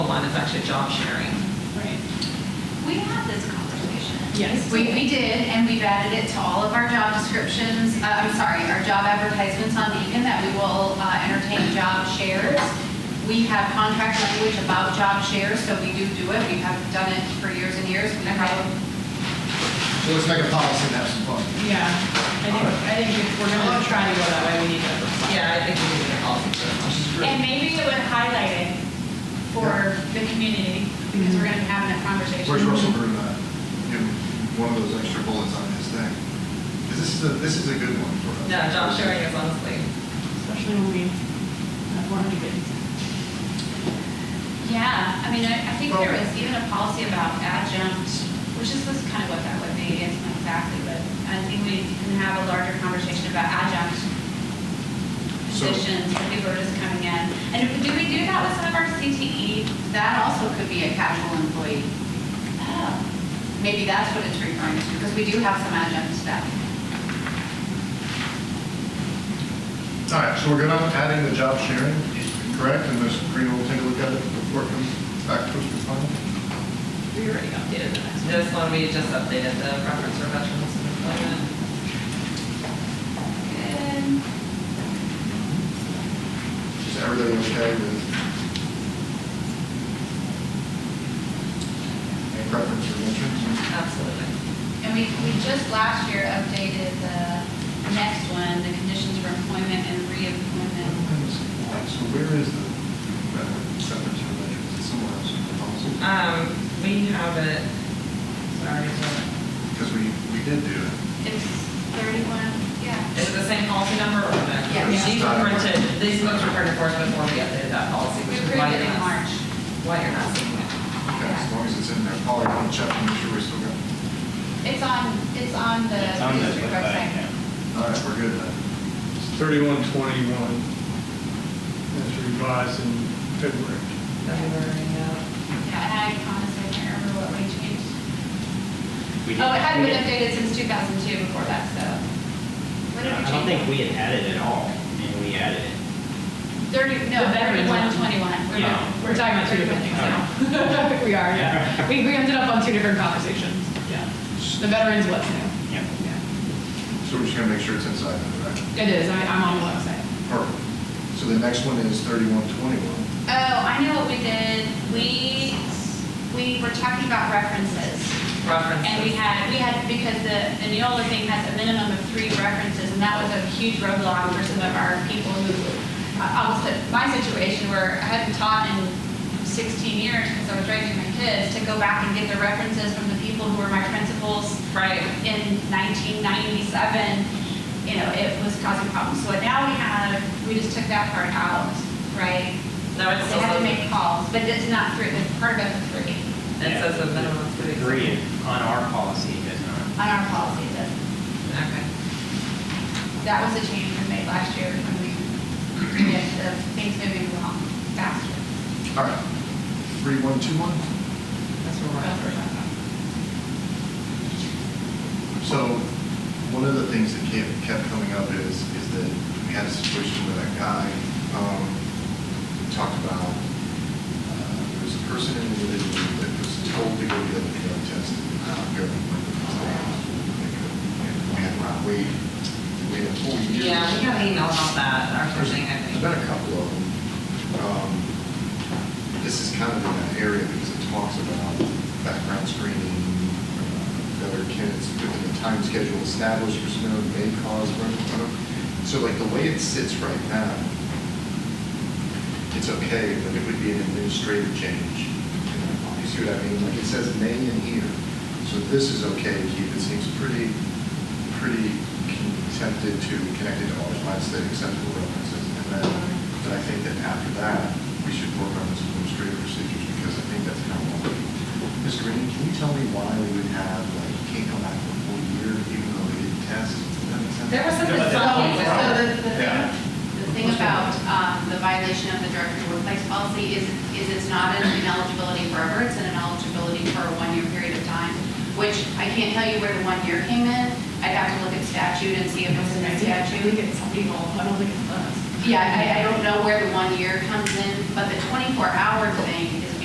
one is actually job sharing. Right. We had this conversation. Yes. We, we did, and we've added it to all of our job descriptions, uh, I'm sorry, our job advertisements on Beacon, that we will uh, entertain job shares. We have contract language about job shares, so we do do it, we have done it for years and years. We probably So let's make a policy and have some fun. Yeah, I think, I think if we're gonna try to go that way, we need to. Yeah, I think we need to call it for And maybe it would highlight it for the community, because we're gonna be having that conversation. Where's Russell Bruno at? You know, one of those extra bullets on his thing. 'Cause this is a, this is a good one for us. Yeah, job sharing is honestly, Especially when we have more to get. Yeah, I mean, I, I think there was even a policy about adjunct, which is, this kind of what that would be, it's not exactly, but I think we can have a larger conversation about adjunct So- positions, for people who are just coming in. And do we do that with some of our CTE? That also could be a casual employee. Oh, Maybe that's what it's referring to, because we do have some adjunct staff. All right, so we're good on adding the job sharing, correct? And Ms. Green will take a look at it before it comes back to us for final? We already updated the next one. this one, we just updated the reference for veterans and employment. Good. Is everything okay with? Any preference or interest? Absolutely. And we, we just last year updated the next one, the conditions for employment and reemployment. So where is the uh, veteran separate to veterans? It's somewhere else in the policy? Um, we have it, sorry, is Because we, we did do it. It's 31, yeah. it the same policy number or no? Yeah. These were printed, these books were printed for us before we updated that policy, We which is why approved it you're in not, March. why you're not seeing it. Okay, as long as it's in there, Paul, you want to check and make sure we still got it? It's on, it's on the It's on the district website website. now. All right, we're good then. Thirty-one twenty-one, that's revised in February. February, yeah. Yeah, and I promise I can't remember what we changed. We Oh, it didn't- hadn't we been didn't- updated since 2002 before that, so. What did we I don't change? think we had had it at all, and we added it. 30, no, The veterans 31, one. 21. We're Yeah. not- We're talking about two different things now. We are, yeah. We, we ended up on two different conversations, yeah. The veterans what's new. Yep. Yeah. So we're just gonna make sure it's inside, of it, right? It is, I, I'm on the website. Perfect. So the next one is thirty-one twenty-one. Oh, I know what we did. We, we were talking about references. References. And we had, we had, because the, the Neola thing has a minimum of three references, and that was a huge roadblock for some of our people who, I was, my situation where I hadn't taught in sixteen years because I was raising my kids, to go back and get the references from the people who were my principals Right. in nineteen ninety-seven, you know, it was causing problems. So now we have, we just took that part out, right? No, it They still have to says, make calls, but it's not three, it's part of the three it says a minimum of three. Three on our policy does on not. our policy, it doesn't. Okay. That was a change we made last year when we get the um, things moving along faster. All right. Thirty-one two-one? That's where we're at. So one of the things that kept, kept coming up is, is that we had a situation with a guy, um, we talked about, uh, there was a person in the living room that was told to go get a drug test. uh, I don't care what the And we had Rob Wade, we had a whole year. Yeah, we got an email about that, or There's something, I think. there's been a couple of them. Um, This is kind of in that area because it talks about background screening, uh, other kids within the time schedule established for snow may cause. burn- burn. So like the way it sits right now, it's okay, but it would be an administrative change. You see what I mean? Like it says may in here, so this is okay to keep. It seems pretty, pretty connected to, connected to all the five state acceptable references. And then, but I think that after that, we should work on this administrative procedures because I think that's kind of what we. Ms. Green, can you tell me why we would have, like, can't come back for a full year even though they didn't test? Does that make sense? There was something So, funky with so the, that. the thing, Yeah. the thing about, um, the violation of the director workplace policy is, is it's not an ineligibility forever, it's an ineligibility for a one-year period of time, which I can't tell you where the one year came in, I'd have to look at statute and see if it's in I the think statute. it's people, I don't think it's us. Yeah, I, I don't know where the one year comes in, but the twenty-four hour thing